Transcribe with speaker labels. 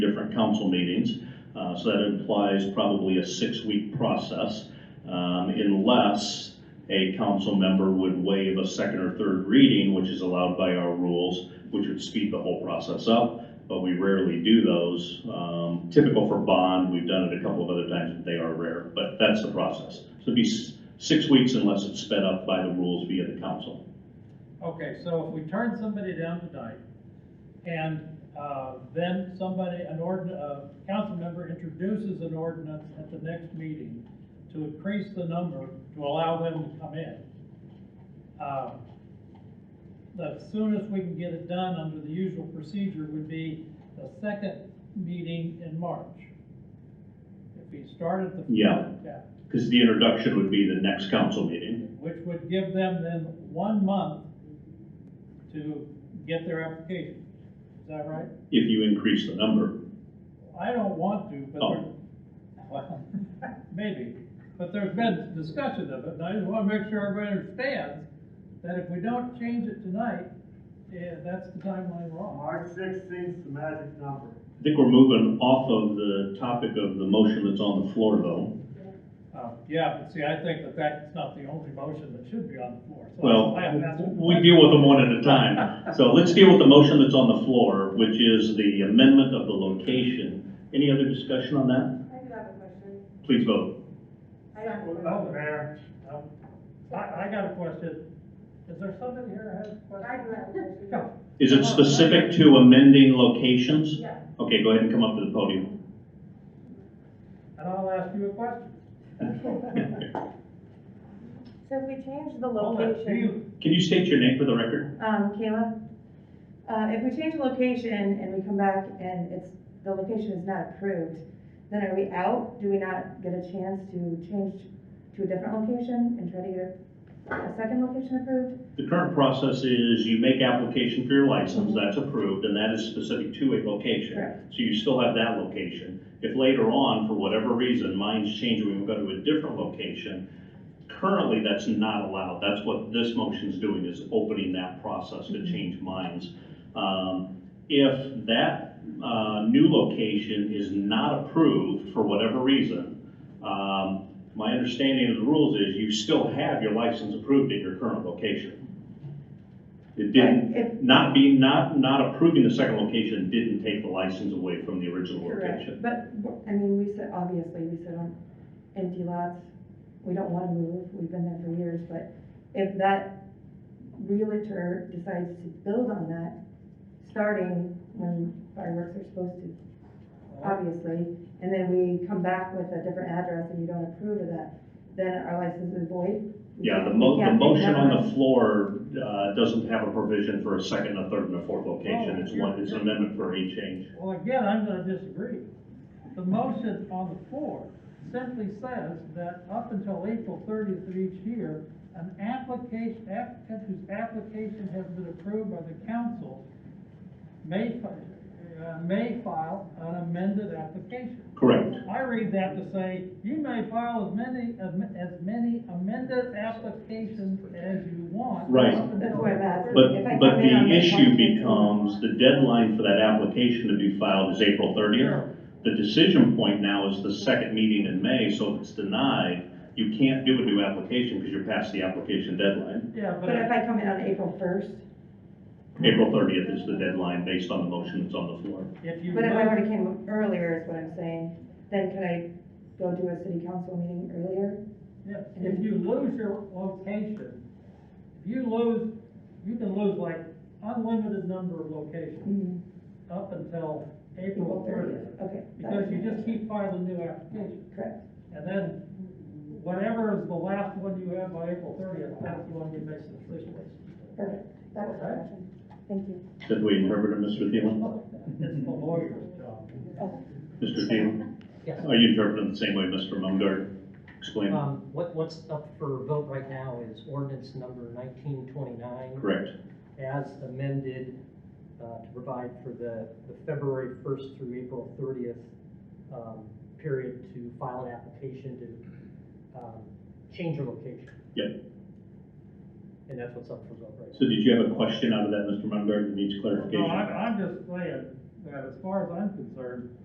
Speaker 1: council meetings. Uh, So that implies probably a six-week process um, unless a council member would waive a second or third reading, which is allowed by our rules, which would speed the whole process up, but we rarely do those. Um, Typical for bond, we've done it a couple of other times, but they are rare, but that's the process. So it'd be s- six weeks unless it's sped up by the rules via the council.
Speaker 2: Okay, so if we turn somebody down tonight, and, uh, then somebody, an ordin, uh, council member introduces an ordinance at the next meeting to increase the number, to allow them to come in. uh, The soonest we can get it done under the usual procedure would be the second meeting in March. If we started the.
Speaker 1: Yeah.
Speaker 2: Yeah.
Speaker 1: Because the introduction would be the next council meeting.
Speaker 2: which would give them then one month to get their application. Is that right?
Speaker 1: If you increase the number,
Speaker 2: I don't want to, but there,
Speaker 1: Oh.
Speaker 2: well, maybe, but there's been discussion of it, and I just wanna make sure everybody understands that if we don't change it tonight, yeah, that's the timeline we're on.
Speaker 3: March sixteenth, the magic number.
Speaker 1: I think we're moving off of the topic of the motion that's on the floor, though.
Speaker 2: Uh, yeah, but see, I think that that's not the only motion that should be on the floor, so.
Speaker 1: Well,
Speaker 2: I- that's-
Speaker 1: we deal with them one at a time. So let's deal with the motion that's on the floor, which is the amendment of the location. Any other discussion on that?
Speaker 4: I do have a question.
Speaker 1: Please vote.
Speaker 4: I have a
Speaker 2: Oh,
Speaker 4: question.
Speaker 3: Mayor,
Speaker 2: no. I, I got a question. Is there somebody here that has a question?
Speaker 4: I do have a
Speaker 2: Yeah.
Speaker 4: question.
Speaker 1: Is it specific to amending locations?
Speaker 4: Yeah.
Speaker 1: Okay, go ahead and come up to the podium.
Speaker 2: And I'll ask you a question.
Speaker 5: So if we change the
Speaker 2: Hold on, do
Speaker 5: location,
Speaker 2: you-
Speaker 1: Can you state your name for the record?
Speaker 5: um, Kayla, uh, if we change the location and we come back and it's, the location is not approved, then are we out? Do we not get a chance to change to a different location and try to get a second location approved?
Speaker 1: The current process is you make application for your license, that's approved, and that is specific to a location.
Speaker 5: Correct.
Speaker 1: So you still have that location. If later on, for whatever reason, minds change, we go to a different location, currently, that's not allowed. That's what this motion's doing, is opening that process to change minds. Um, If that uh, new location is not approved for whatever reason, um, my understanding of the rules is you still have your license approved at your current location. It didn't,
Speaker 5: Right,
Speaker 1: not being, not, not approving the second location didn't take the license away from the original location.
Speaker 5: Correct, but, I mean, we sit, obviously, we sit on empty lots, we don't wanna move, we've been there for years, but if that realtor decides to build on that, starting when fireworks are supposed to, obviously, and then we come back with a different address and you don't approve of that, then our license is void? We
Speaker 1: Yeah, the
Speaker 5: can't-
Speaker 1: mo,
Speaker 5: we
Speaker 1: the
Speaker 5: can't pick
Speaker 1: motion
Speaker 5: that
Speaker 1: on
Speaker 5: up.
Speaker 1: the floor, uh, doesn't have a provision for a second, a third, and a fourth location.
Speaker 5: Oh,
Speaker 1: It's one, it's an amendment for a change.
Speaker 2: Well, again, I'm gonna disagree. The motion on the floor simply says that up until April thirtieth of each year, an application, applicant whose application has been approved by the council may, fi- uh, may file an amended application.
Speaker 1: Correct.
Speaker 2: I read that to say, you may file as many, am- as many amended applications as you want.
Speaker 1: Right.
Speaker 2: up until
Speaker 5: That's why I'm asking.
Speaker 2: April 30th.
Speaker 5: If I
Speaker 1: But, but
Speaker 5: come in on
Speaker 1: the
Speaker 5: the
Speaker 1: issue
Speaker 5: 14th.
Speaker 1: becomes, the deadline for that application to be filed is April thirtieth.
Speaker 2: Sure.
Speaker 1: The decision point now is the second meeting in May, so if it's denied, you can't do a new application because you're past the application deadline.
Speaker 2: Yeah,
Speaker 5: But if I come in on April first,
Speaker 1: April thirtieth is the deadline based on the motion that's on the floor.
Speaker 2: if you.
Speaker 5: But if I
Speaker 2: vote-
Speaker 5: already came earlier is what I'm saying, then could I go to a city council meeting earlier?
Speaker 2: Yes, if you lose your location, if you lose, you can lose like unlimited number of locations up until April
Speaker 5: Mm-hmm. April
Speaker 2: thirtieth.
Speaker 5: thirtieth, okay.
Speaker 2: Because you just keep filing new applications,
Speaker 5: Correct,
Speaker 2: and then whatever is the last one you have by April thirtieth, that's the one you make the decision with.
Speaker 5: perfect, that was my question, thank you.
Speaker 1: Did we interpret it, Mr. Thielen?
Speaker 2: It's the lawyer's job.
Speaker 5: Oh,
Speaker 1: Mr. Thielen?
Speaker 6: Yes.
Speaker 1: Are you interpreting the same way Mr. Mungard explained?
Speaker 6: Um, what, what's up for vote right now is ordinance number nineteen twenty-nine
Speaker 1: Correct.
Speaker 6: as amended, uh, to provide for the, the February first through April thirtieth, um, period to file an application to, um, change your location.
Speaker 1: Yep.
Speaker 6: And that's what's up for vote right now.
Speaker 1: So did you have a question out of that, Mr. Mungard, that needs clarification?
Speaker 2: No, I'm, I'm just saying that as far as I'm concerned,